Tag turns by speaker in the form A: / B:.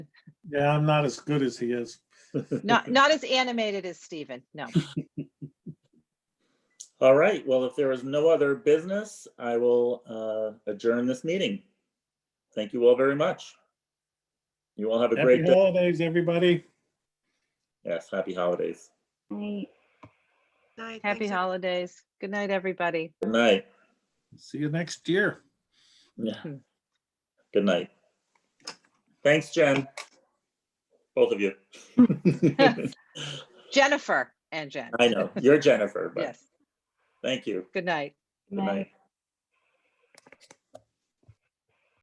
A: Yeah, I'm not as good as he is.
B: Not, not as animated as Stephen, no.
C: All right, well, if there is no other business, I will uh, adjourn this meeting. Thank you all very much. You all have a
A: Happy
C: great day.
A: holidays, everybody.
C: Yes, happy holidays.
D: Right.
E: Night,
B: Happy
E: thanks, everyone.
B: holidays. Good night, everybody.
C: Good night.
A: See you next year.
C: Yeah.
B: Hmm.
C: Good night. Thanks, Jen. Both of you.
B: Jennifer and Jen.
C: I know, you're Jennifer, but
B: Yes,
C: thank you.
B: good night.
C: Good night.